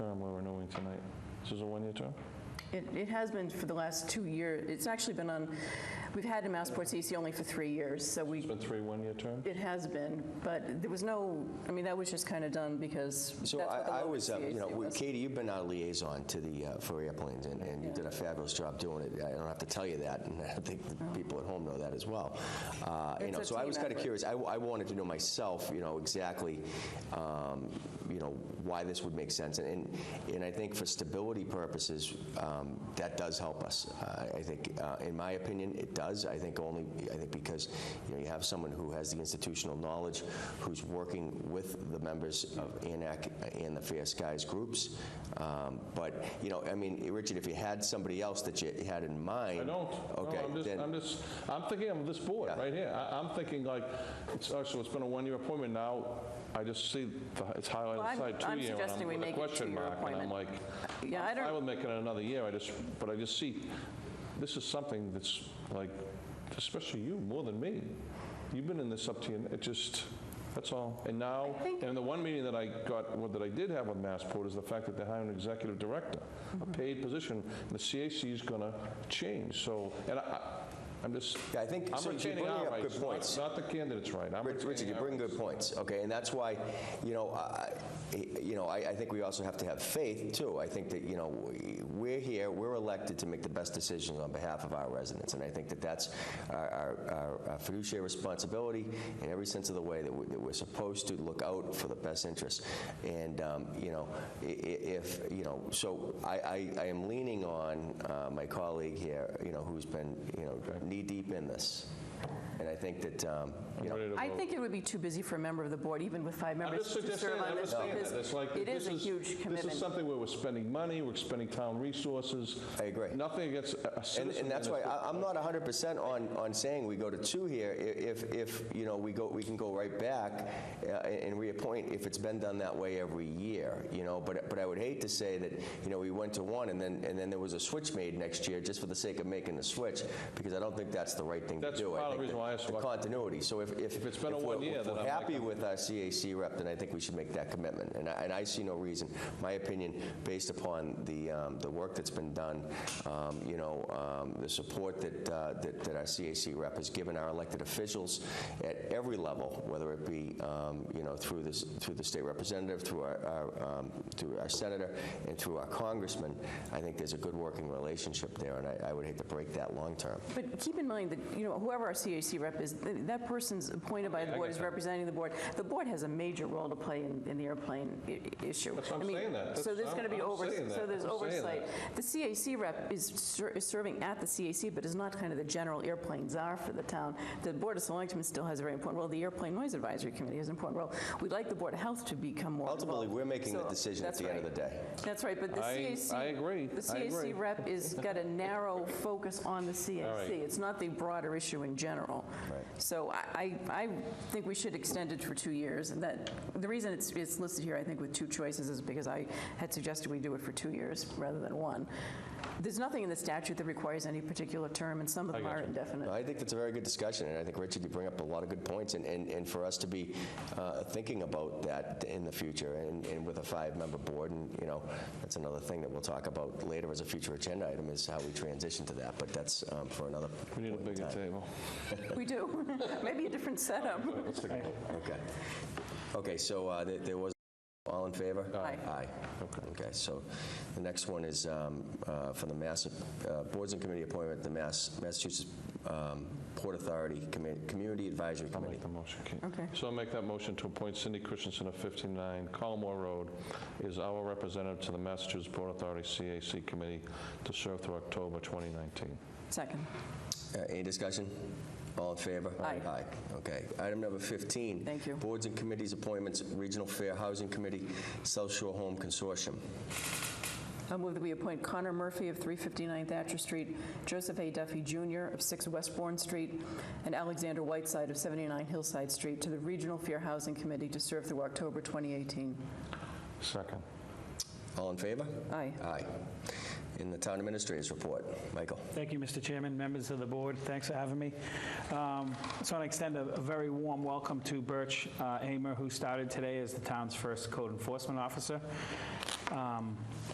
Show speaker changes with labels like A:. A: This is a one-year term?
B: It, it has been for the last two years. It's actually been on, we've had a Massports EC only for three years, so we,
A: It's been three one-year terms?
B: it has been, but there was no, I mean, that was just kind of done because that's
C: So
B: what the
C: I, I
B: local
C: was, uh, you know,
B: CAC
C: we-
B: was.
C: Katie, you've been our liaison to the, uh, for airplanes, and, and you did a fabulous job doing it. I don't have to tell you that, and I think the people at home know that as well. Uh,
B: Uh-huh.
C: You
B: It's
C: know,
B: a
C: so I
B: team
C: was kind of
B: effort.
C: curious, I, I wanted to know myself, you know, exactly, um, you know, why this would make sense. And, and I think for stability purposes, um, that does help us. Uh, I think, uh, in my opinion, it does. I think only, I think because, you know, you have someone who has the institutional knowledge, who's working with the members of ANAC and the Fair Skies groups. Um, But, you know, I mean, Richard, if you had somebody else that you had in mind.
A: I don't. No,
C: Okay,
A: I'm just,
C: then-
A: I'm just, I'm thinking of this board
C: Yeah.
A: right here. I- I'm thinking like, it's, oh, so it's been a one-year appointment, now I just see the- it's
B: Well,
A: highlighted
B: I'm-
A: side
B: I'm
A: two-year, and
B: suggesting
A: I'm
B: we
A: with a
B: make it
A: question
B: two-year
A: mark, and I'm
B: appointment.
A: like,
B: Yeah, I
A: I'm fine
B: don't,
A: with making it another year, I just, but I just see, this is something that's like, especially you, more than me. You've been in this up to, your it just, that's all. And now, and the one meeting that I got, what that I did have with Massport is the fact that they're hiring an executive director, a
B: Mm-hmm.
A: paid position, and the CAC is going to change, so, and I, I- I'm just,
C: Yeah, I think-
A: I'm
C: so you're
A: retaining
C: bringing
A: our
C: up good
A: rights, not
C: points.
A: not the candidate's right. I'm
C: Rich-
A: retaining
C: Richard, you
A: our
C: bring
A: rights.
C: good points, okay, and that's why, you know, I, I- you know, I, I think we also have to have faith too. I think that you know we- we're here, we're elected to make the best decisions on behalf of our residents, and I think that that's our, our, our- our fiduciary responsibility in every sense of the way that, we, that we're supposed to look out for the best interests. And um, you know, i- i- if you know, so I, I, I am leaning on uh, my colleague here, you know, who's been you know knee deep in this, and I think that um, you know.
A: Ready to
B: I
A: vote.
B: think it would be too busy for a member of the board, even with five
A: I'm
B: members,
A: just
B: to
A: just saying,
B: serve on
A: I'm
B: this.
A: just saying
B: because
A: that. It's like,
B: It
A: this
B: is a huge
A: This is
B: commitment.
A: something where we're spending money, we're expending town resources.
C: I agree.
A: Nothing against a- a
C: And,
A: citizen.
C: and that's
A: in
C: why
A: this-
C: I, I'm not 100% on, on saying we go to two here, I- if, if, you know, we go, we can go right back uh, and and reappoint if it's been done that way every year, you know, but, but I would hate to say that, you know, we went to one and then, and then there was a switch made next year just for the sake of making the switch, because I don't think that's the right thing to do.
A: That's
C: I
A: part of
C: think
A: the reason why I asked
C: The
A: about-
C: continuity, so if, if. If
A: it's been a
C: we're-
A: one year,
C: If
A: then
C: we're
A: I'm like,
C: happy with our CAC rep, then I think we should make that commitment, and I, and I see no reason, my opinion, based upon the, um, the work that's been done, um, you know, um, the support that, uh, that that our CAC rep has given our elected officials at every level, whether it be, um, you know, through this, through the state representative, through our, our, um, through our senator, and through our congressman, I think there's a good working relationship there, and I, I would hate to break that long-term.
B: But keep in mind that, you know, whoever our CAC rep is, th- that person's appointed by the board, is representing the board. The board has a major role to play in, in the airplane i- i- issue.
A: That's what I'm
B: I mean,
A: saying that.
B: So
A: That's-
B: there's
A: I'm-
B: going to be
A: I'm
B: over,
A: saying
B: so
A: that.
B: there's
A: I'm saying
B: oversight. The CAC rep is ser- is serving at the CAC, but is not kind of the general airplane czar for the town. The Board of Selectmen still has a very important role. The Airplane Noise Advisory Committee has an important role. We'd like the Board of Health to become more involved.
C: Ultimately, we're making the
B: So
C: decision at
B: that's
C: the end of the
B: right.
C: day.
B: That's right, but the
A: I-
B: CAC.
A: I agree.
B: The
A: I agree.
B: CAC rep is, got a narrow focus on the CAC.
A: right.
B: It's not the broader issue in general. So I, I I think we should extend it for two years, and that, the reason it's, it's listed here, I think, with two choices is because I had suggested we do it for two years rather than one. There's nothing in the statute that requires any particular term, and some of them are indefinite.
C: No, I think that's a very good discussion, and I think, Richard, you bring up a lot of good points, and, and and for us to be uh, thinking about that in the future, and and with a five-member board, and, you know, that's another thing that we'll talk about later as a future agenda item, is how we transition to that, but that's um, for another
A: We need a
C: point in
A: bigger
C: time.
A: table.
B: We do, maybe a different setup.
A: Let's take a vote.
C: Okay. Okay, so uh, there there was, all in favor?
B: Aye.
C: Aye. Okay, so the next one is um, uh, for the Mass, uh, Boards and Committee appointment, the Mass Massachusetts um, Port Authority Commi- Community Advisory
A: I'll
C: Committee.
A: make the motion, Kate.
B: Okay.
A: So I'll make that motion to appoint Cindy Christensen of 59 Colmore Road is our representative to the Massachusetts Port Authority CAC Committee to serve through October 2019.
B: Second.
C: Uh, Any discussion? All in favor?
B: Aye.
C: okay. Item number 15.
B: Thank you.
C: Boards and committees appointments, Regional Fair Housing Committee, South Shore Home Consortium.
B: I move that we appoint Connor Murphy of 359 Thatcher Street, Joseph A. Duffy Jr. of 6 Westbourne Street, and Alexander Whiteside of 79 Hillside Street to the Regional Fair Housing Committee to serve through October 2018.
A: Second.
C: All in favor?
B: Aye.
C: Aye. In the Town Administrator's Report, Michael.
D: Thank you, Mr. Chairman, members of the board, thanks for having me. Um, So I extend a a very warm welcome to Birch uh, Amer, who started today as the town's first code enforcement officer. Um,